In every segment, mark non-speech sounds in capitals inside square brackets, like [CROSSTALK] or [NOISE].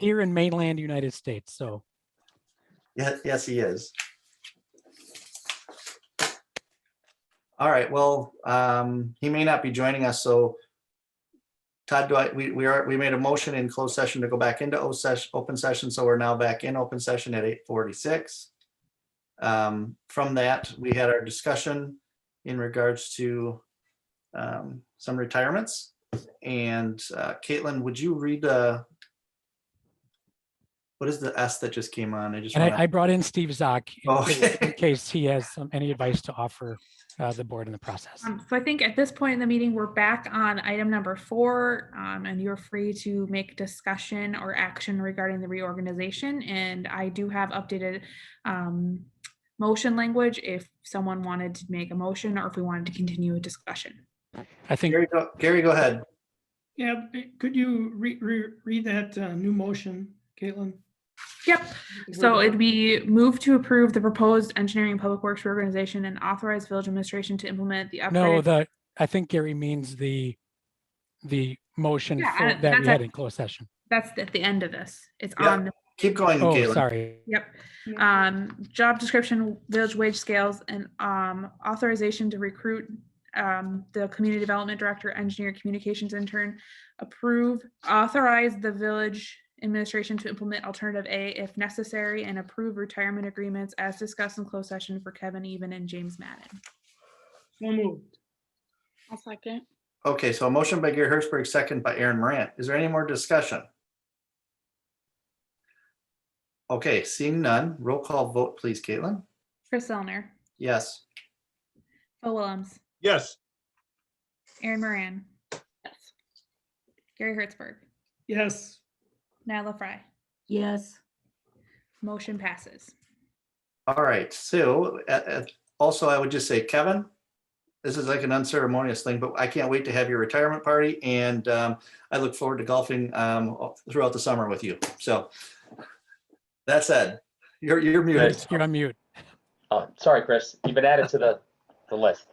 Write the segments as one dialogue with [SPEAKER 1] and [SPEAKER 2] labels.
[SPEAKER 1] here in mainland United States. So
[SPEAKER 2] Yes, yes, he is. All right, well, um, he may not be joining us, so Todd, do I, we, we are, we made a motion in closed session to go back into O session, open session, so we're now back in open session at eight forty-six. Um, from that, we had our discussion in regards to um, some retirements. And uh, Caitlin, would you read uh what is the S that just came on? I just.
[SPEAKER 1] and
[SPEAKER 2] wanna-
[SPEAKER 1] I, I brought in Steve Zock in
[SPEAKER 2] Oh.
[SPEAKER 1] case- in case he has some, any advice to offer uh, the board in the process.
[SPEAKER 3] Um, So I think at this point in the meeting, we're back on item number four, um, and you're free to make discussion or action regarding the reorganization. And I do have updated um, motion language if someone wanted to make a motion or if we wanted to continue a discussion.
[SPEAKER 1] I think
[SPEAKER 2] Gary, go- Gary, go ahead.
[SPEAKER 4] Yeah, b- could you re, re, read that uh, new motion, Caitlin?
[SPEAKER 3] Yep, So it'd be move to approve the proposed engineering and public works reorganization and authorize village administration to implement the
[SPEAKER 1] no,
[SPEAKER 3] upgraded.
[SPEAKER 1] the I think Gary means the the motion
[SPEAKER 3] Yeah,
[SPEAKER 1] for-
[SPEAKER 3] I-
[SPEAKER 1] that we
[SPEAKER 3] that's
[SPEAKER 1] had
[SPEAKER 3] a-
[SPEAKER 1] in closed session.
[SPEAKER 3] That's at the end of this. It's
[SPEAKER 2] Yeah.
[SPEAKER 3] on the
[SPEAKER 2] Keep going,
[SPEAKER 1] Oh,
[SPEAKER 2] Caitlin.
[SPEAKER 1] sorry.
[SPEAKER 3] Yep.
[SPEAKER 4] Yeah.
[SPEAKER 3] Um, job description, village wage scales and, um, authorization to recruit, um, the community development director, engineer, communications intern. Approve, authorize the village administration to implement alternative A if necessary and approve retirement agreements as discussed in closed session for Kevin Even and James Madden.
[SPEAKER 4] So moved.
[SPEAKER 5] I'll second.
[SPEAKER 2] Okay, so a motion by Gary Hertzberg, second by Aaron Morant. Is there any more discussion? Okay, seeing none, roll call vote, please, Caitlin.
[SPEAKER 3] Chris Elner,
[SPEAKER 2] Yes.
[SPEAKER 3] Phil Willems,
[SPEAKER 6] Yes,
[SPEAKER 3] Aaron Moran,
[SPEAKER 5] Yes.
[SPEAKER 3] Gary Hertzberg,
[SPEAKER 4] Yes,
[SPEAKER 3] Nyla Fry.
[SPEAKER 5] Yes.
[SPEAKER 3] Motion passes.
[SPEAKER 2] All right, so uh, uh, also I would just say, Kevin, this is like an unceremonious thing, but I can't wait to have your retirement party and um, I look forward to golfing um, throughout the summer with you. So that said, you're, you're muted.
[SPEAKER 1] Yes, You're on mute.
[SPEAKER 7] Oh, sorry, Chris. You've been added to the, the list.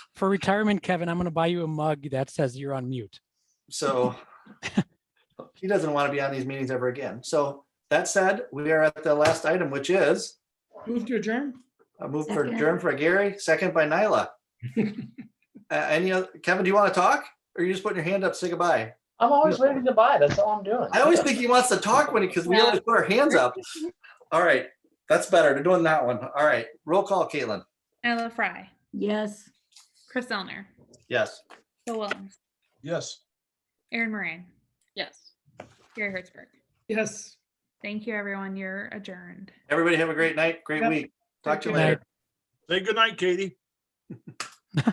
[SPEAKER 2] [LAUGHS]
[SPEAKER 1] For retirement, Kevin, I'm going to buy you a mug that says you're on mute.
[SPEAKER 2] So he doesn't want to be on these meetings ever again. So that said, we are at the last item, which is
[SPEAKER 4] move to adjourn?
[SPEAKER 2] a move for
[SPEAKER 5] Second.
[SPEAKER 2] adjourn for Gary, second by Nyla. Uh, Any, other Kevin, do you want to talk? Or you just putting your hand up, say goodbye?
[SPEAKER 7] I'm always ready to buy. That's all I'm doing.
[SPEAKER 2] I always think he wants to talk when, because we always put our hands up. All right, that's better. They're doing that one. All right, roll call, Caitlin.
[SPEAKER 3] Nyla Fry,
[SPEAKER 5] Yes.
[SPEAKER 3] Chris Elner,
[SPEAKER 2] Yes.
[SPEAKER 3] Phil Willems,
[SPEAKER 6] yes.
[SPEAKER 3] Aaron Moran,
[SPEAKER 5] Yes.
[SPEAKER 3] Gary Hertzberg.
[SPEAKER 4] Yes.
[SPEAKER 3] Thank you, everyone. You're adjourned.
[SPEAKER 2] Everybody have a great night, great
[SPEAKER 4] Yep.
[SPEAKER 2] week. Talk to you
[SPEAKER 1] Good night.
[SPEAKER 2] later.
[SPEAKER 6] Say goodnight, Katie.